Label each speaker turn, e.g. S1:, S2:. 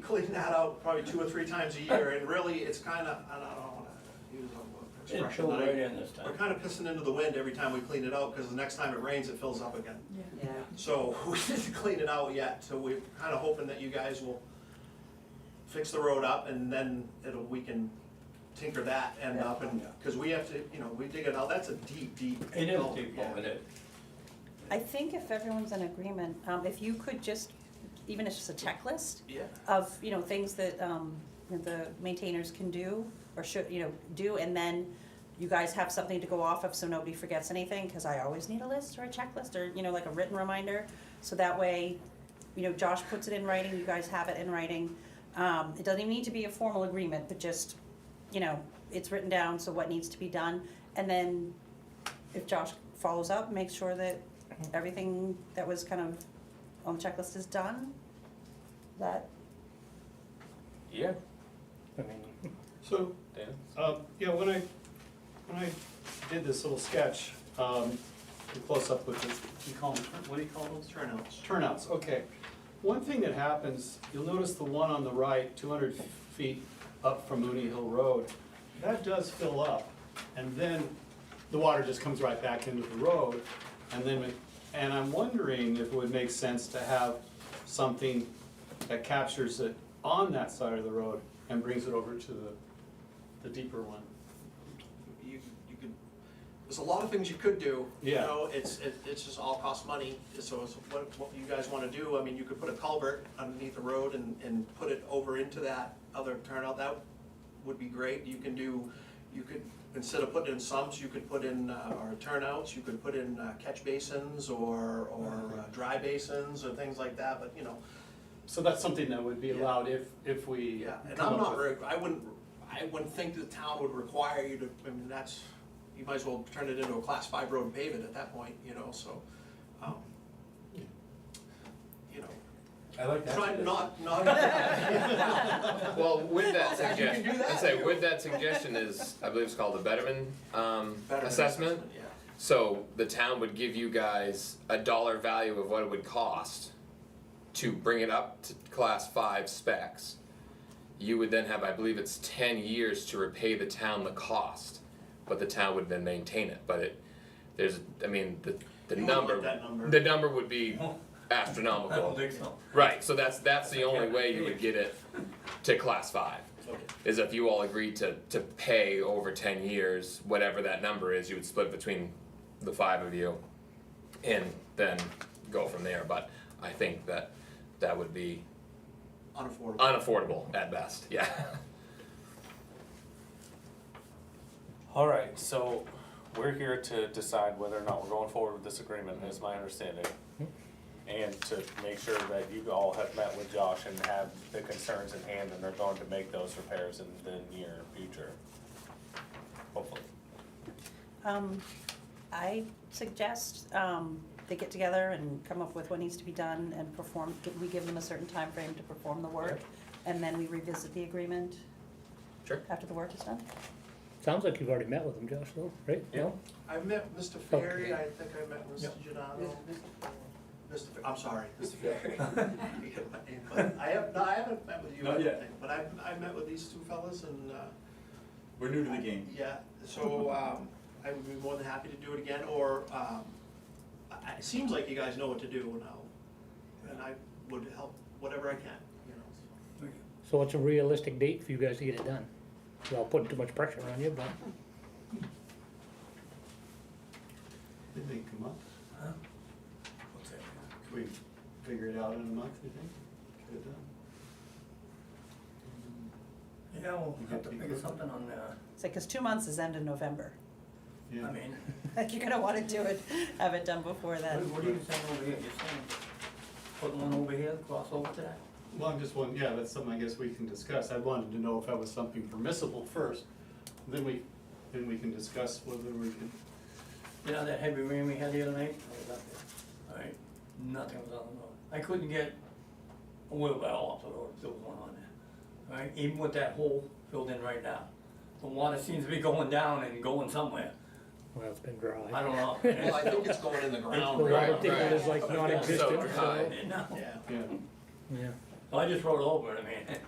S1: clean that out probably two or three times a year, and really, it's kind of, I don't wanna use a
S2: It
S1: expression.
S2: chilled
S1: that I-
S2: right in this time.
S1: We're kind of pissing into the wind every time we clean it out, because the next time it rains, it fills up again.
S3: Yeah,
S1: So we didn't clean it out yet, so we're kind of hoping that you guys will fix the road up and then it'll, we can tinker that end up and, because we have to, you know, we dig it out, that's a deep, deep.
S2: It is
S1: gully,
S2: deep,
S1: yeah.
S2: oh, it is.
S3: I think if everyone's in agreement, um, if you could just, even if it's just a checklist
S1: Yeah,
S3: of, you know, things that, um, the maintainers can do or should, you know, do, and then you guys have something to go off of so nobody forgets anything, cause I always need a list or a checklist or, you know, like a written reminder. So that way, you know, Josh puts it in writing, you guys have it in writing. Um, it doesn't even need to be a formal agreement, but just, you know, it's written down, so what needs to be done. And then if Josh follows up, make sure that everything that was kind of on the checklist is done. That,
S4: Yeah,
S2: I mean,
S5: So,
S4: yeah.
S5: um, yeah, when I, when I did this little sketch, um, the close-up with the, you call them, turn- what do you call those?
S1: turnouts.
S5: Turnouts, okay. One thing that happens, you'll notice the one on the right, two hundred feet up from Mooney Hill Road, that does fill up, and then the water just comes right back into the road, and then, it- and I'm wondering if it would make sense to have something that captures it on that side of the road and brings it over to the, the deeper one.
S1: You, you could, there's a lot of things you could do. You
S5: Yeah.
S1: know, it's, it, it's just all costs money, so it's what, what you guys wanna do, I mean, you could put a culvert underneath the road and, and put it over into that other turnout, that would be great, you can do, you could, instead of putting in sumps, you could put in, uh, or turnouts, you could put in uh, catch basins or, or uh, dry basins or things like that, but, you know,
S5: So that's something that would be
S1: Yeah.
S5: allowed if, if we.
S1: yeah, and
S5: come
S1: I'm
S5: up
S1: not,
S5: with-
S1: very- I wouldn't, I wouldn't think the town would require you to, I mean, that's, you might as well turn it into a class five road and pave it at that point, you know, so, um, you know,
S6: I like that.
S1: try not, not,
S4: Well, with that
S1: You can do
S4: suggestion,
S1: that.
S4: I'd say with that suggestion is, I believe it's called the Betterman, um,
S1: better.
S4: assessment.
S1: Yeah,
S4: So the town would give you guys a dollar value of what it would cost to bring it up to class five specs. You would then have, I believe it's ten years to repay the town the cost, but the town would then maintain it, but it, there's, I mean, the, the
S1: You wouldn't
S4: number.
S1: like that number.
S4: The number would be astronomical.
S6: I don't think so.
S4: Right, so that's, that's the only way you would get it to class five, is if you all agreed to, to pay over ten years, whatever that number is, you would split between the five of you and then go from there, but I think that that would be
S1: unaffordable.
S4: unaffordable at best, yeah.
S7: All right, so we're here to decide whether or not we're going forward with this agreement, is my understanding. And to make sure that you all have met with Josh and have the concerns in hand and they're going to make those repairs in the near future. Hopefully.
S3: um, I suggest, um, they get together and come up with what needs to be done and perform, we give them a certain time frame to perform the work, and then we revisit the agreement.
S4: Sure.
S3: After the work is done.
S2: sounds like you've already met with him, Josh, though, right? No?
S1: I met Mr. Ferry, I think I met Mr. Giordano. Mr., Fer- I'm sorry, Mr. Ferry. You get my name, but I have, no, I haven't met with you, I
S6: Not
S1: don't
S6: yet.
S1: think, but I, I met with these two fellas and, uh,
S6: We're new to the game.
S1: Yeah, so, um, I would be more than happy to do it again, or, um, I- it seems like you guys know what to do now, and I would help whatever I can, you know.
S2: So what's a realistic date for you guys to get it done? Without putting too much pressure on you, but
S5: Did they come up?
S6: What's that?
S5: Can we figure it out in a month, you think? Get it done?
S6: Yeah, we'll have to figure something on, uh,
S3: It's like, cause two months is end of November,
S5: Yeah.
S6: I mean,
S3: like, you're gonna wanna do it, have it done before
S6: what,
S3: then.
S6: what are you saying over here? You're saying put one over here, cross over to that?
S5: Well, I'm just one, yeah, that's something I guess we can discuss. I wanted to know if that was something permissible first, then we, then we can discuss whether we can.
S6: You know that heavy rain we had the other night? I was up there. Alright, nothing was on the road. I couldn't get a wheelbarrow off the road if there was one on there. Alright, even with that hole filled in right now. The water seems to be going down and going somewhere.
S2: well, it's been dry.
S6: I don't know.
S1: Well, I think it's going in the ground.
S2: The water
S4: Right,
S2: table
S4: right.
S6: uh,
S2: is like non-existent,
S4: So dry.
S2: so,
S6: No.
S1: Yeah,
S5: Yeah,
S2: yeah.
S6: I just rode over it, I mean.